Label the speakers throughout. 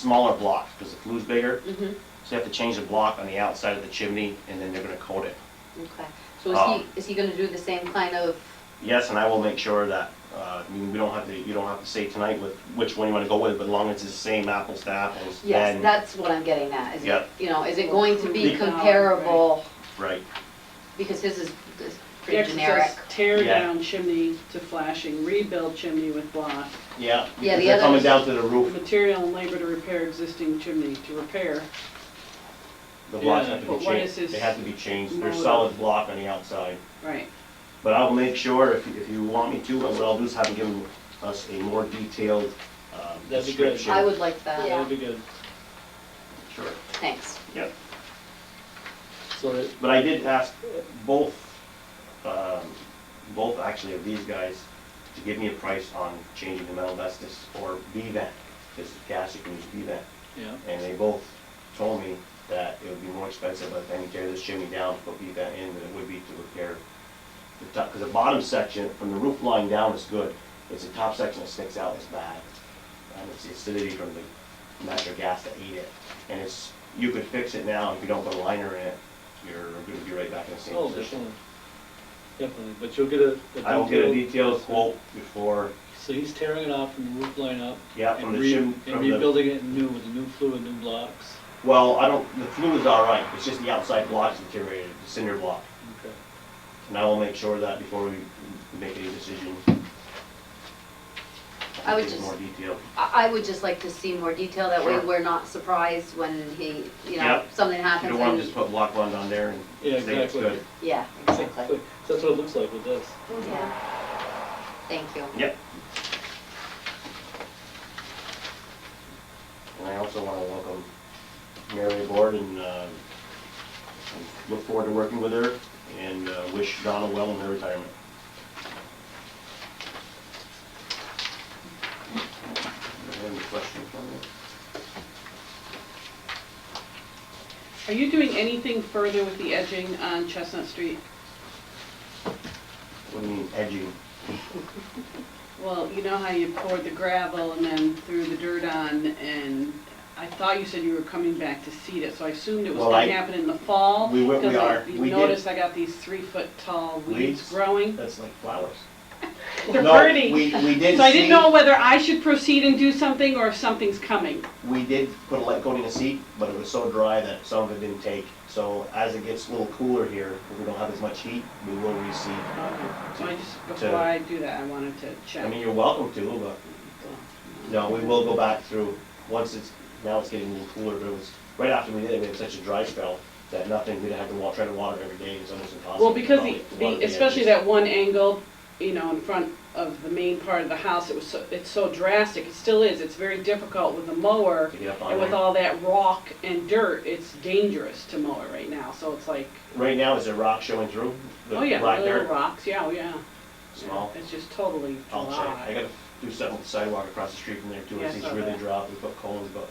Speaker 1: smaller blocks, because the flu's bigger. So you have to change the block on the outside of the chimney, and then they're gonna coat it.
Speaker 2: Okay, so
Speaker 1: Oh.
Speaker 2: is he, is he gonna do the same kind of,
Speaker 1: Yes, and I will make sure that, uh, I mean, we don't have to, you don't have to say tonight with which one you wanna go with, but as long as it's the same apples to apples,
Speaker 2: yes,
Speaker 1: then,
Speaker 2: that's what I'm getting at, is it,
Speaker 1: Yep.
Speaker 2: you know, is it going to be
Speaker 1: Be-
Speaker 2: comparable?
Speaker 1: right.
Speaker 2: Because his is is
Speaker 3: Next
Speaker 2: pretty
Speaker 3: it
Speaker 2: generic.
Speaker 3: says Tear
Speaker 1: Yeah.
Speaker 3: down chimney to flashing, rebuild chimney with block,
Speaker 1: Yeah,
Speaker 2: Yeah,
Speaker 1: because
Speaker 2: the
Speaker 1: they're
Speaker 2: other
Speaker 1: coming
Speaker 2: is-
Speaker 1: down to the roof,
Speaker 3: material and labor to repair existing chimney, to repair.
Speaker 1: the blocks have to
Speaker 3: But
Speaker 1: be
Speaker 3: what is
Speaker 1: changed,
Speaker 3: his
Speaker 1: they have to be changed, they're
Speaker 3: motive?
Speaker 1: solid block on the outside.
Speaker 3: Right,
Speaker 1: But I'll make sure, if, if you want me to, what I'll do is have them give us a more detailed, um,
Speaker 4: That'd be good.
Speaker 1: description.
Speaker 2: I would like
Speaker 4: That
Speaker 2: that,
Speaker 4: would be good.
Speaker 1: Sure,
Speaker 2: thanks.
Speaker 1: yeah.
Speaker 4: So that,
Speaker 1: But I did ask both, um, both actually of these guys to give me a price on changing the metal vestas or B-vent, because gas, you can use B-vent.
Speaker 4: yeah,
Speaker 1: And they both told me that it would be more expensive, but then you tear this chimney down to put B-vent in than it would be to repair the top, because the bottom section from the roof line down is good. It's the top section that sticks out is bad. And it's the acidity from the natural gas that ate it. And it's, you could fix it now, if you don't put a liner in it, you're gonna be right back in the same
Speaker 4: oh,
Speaker 1: position.
Speaker 4: definitely, definitely, but you'll get a. a
Speaker 1: I will get a
Speaker 4: detailed-
Speaker 1: detailed quote before,
Speaker 4: So he's tearing it off from the roof line up.
Speaker 1: yeah,
Speaker 4: and
Speaker 1: from the
Speaker 4: re-
Speaker 1: shim,
Speaker 4: And
Speaker 1: from the,
Speaker 4: rebuilding it new with new fluid, new blocks.
Speaker 1: well, I don't, the flue is all right, it's just the outside block's deteriorated, the cinder block.
Speaker 4: Okay.
Speaker 1: And I will make sure of that before we make any decision.
Speaker 2: I would
Speaker 1: Get
Speaker 2: just-
Speaker 1: More detail.
Speaker 2: I, I would just like to see more detail, that way
Speaker 1: Sure.
Speaker 2: we're not surprised when he, you know,
Speaker 1: Yep.
Speaker 2: something
Speaker 1: You
Speaker 2: happens
Speaker 1: don't want to
Speaker 2: and,
Speaker 1: just put block one on there and
Speaker 4: Yeah,
Speaker 1: say it's
Speaker 4: exactly.
Speaker 1: good.
Speaker 2: yeah, exactly.
Speaker 4: So that's what it looks like with this.
Speaker 2: Yeah. Thank you.
Speaker 1: Yep. And I also want to welcome Mary aboard and uh, and look forward to working with her and uh, wish Donna well in her retirement. Any questions on that?
Speaker 3: are you doing anything further with the edging on Chestnut Street?
Speaker 1: What do you mean edging?
Speaker 3: Well, you know how you poured the gravel and then threw the dirt on, and I thought you said you were coming back to seed it, so I assumed it was
Speaker 1: Well, I-
Speaker 3: gonna happen in the fall.
Speaker 1: We will- we
Speaker 3: because I-
Speaker 1: are.
Speaker 3: You
Speaker 1: We did.
Speaker 3: noticed I got these three-foot tall weeds
Speaker 1: Weeds?
Speaker 3: growing.
Speaker 1: That's like flowers.
Speaker 3: They're
Speaker 1: No,
Speaker 3: pretty.
Speaker 1: We, we did
Speaker 3: So I didn't
Speaker 1: seed-
Speaker 3: know whether I should proceed and do something or if something's coming.
Speaker 1: We did put a light coating of seed, but it was so dry that some of it didn't take. So as it gets a little cooler here, if we don't have as much heat, we will reseed.
Speaker 3: So I just,
Speaker 1: To-
Speaker 3: before I do that, I wanted to
Speaker 1: I mean,
Speaker 3: check.
Speaker 1: you're welcome to, but no, we will go back through, once it's, now it's getting a little cooler, but it was, right after we did it, we had such a dry spell that nothing, we'd have to wa, try to water every day, it was almost impossible.
Speaker 3: Well, because
Speaker 1: Probably
Speaker 3: the,
Speaker 1: water
Speaker 3: the, especially
Speaker 1: edges.
Speaker 3: that one angle, you know, in front of the main part of the house, it was so, it's so drastic, it still is, it's very difficult with a mower.
Speaker 1: To get up on
Speaker 3: And with
Speaker 1: there.
Speaker 3: all that rock and dirt, it's dangerous to mow it right now, so it's like,
Speaker 1: Right now, is there rock showing through? The
Speaker 3: oh yeah,
Speaker 1: black
Speaker 3: the little
Speaker 1: dirt?
Speaker 3: rocks, yeah, oh yeah.
Speaker 1: Small.
Speaker 3: It's just totally
Speaker 1: I'll check. I
Speaker 3: dry.
Speaker 1: gotta do something with the sidewalk across the street from there too,
Speaker 3: Yeah, I
Speaker 1: as things
Speaker 3: saw
Speaker 1: really
Speaker 3: that.
Speaker 1: drop, we put cones, but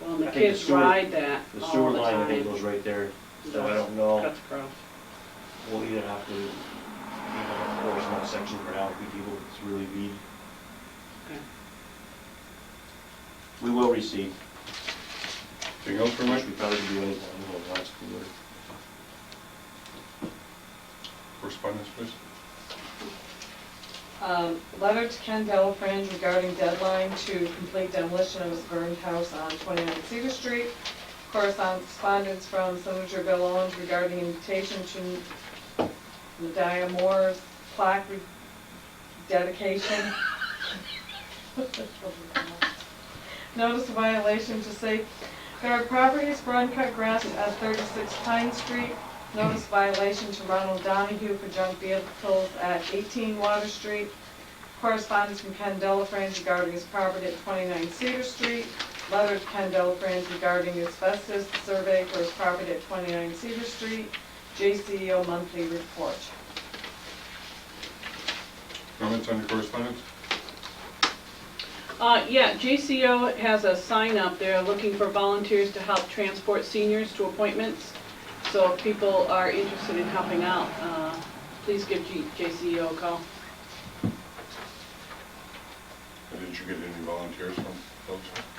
Speaker 3: Well, and the
Speaker 1: I think the
Speaker 3: kids
Speaker 1: sewer-
Speaker 3: ride that
Speaker 1: the
Speaker 3: all
Speaker 1: sewer
Speaker 3: Oh, the
Speaker 1: line, I think,
Speaker 3: time.
Speaker 1: goes right there, so I
Speaker 3: Does.
Speaker 1: don't know,
Speaker 3: Cuts across.
Speaker 1: we'll either have to, you know, force one section for now, if people, it's really be.
Speaker 3: Okay.
Speaker 1: We will receive,
Speaker 5: Anything else for
Speaker 1: which
Speaker 5: Mike?
Speaker 1: we probably do anything, you know, lots of cooler.
Speaker 5: Correspondence, please.
Speaker 6: Um, Letter to Ken Delafrance regarding deadline to complete demolition of his burned house on 29 Cedar Street. Correspondence from Senator Bill Owens regarding invitation to Nadia Moore's plaque re- dedication. Notice of violation to safe guard properties for uncut grass at 36 Pine Street. Notice violation to Ronald Donahue for junk vehicles at 18 Water Street. Correspondence from Ken Delafrance regarding his property at 29 Cedar Street. Letter to Ken Delafrance regarding asbestos survey for his property at 29 Cedar Street. JCEO monthly report.
Speaker 5: Comments on the correspondence?
Speaker 3: Uh, yeah, JCO has a sign up there looking for volunteers to help transport seniors to appointments. So if people are interested in helping out, uh, please give G- JCO a call.
Speaker 5: Or Did you get any volunteers from folks?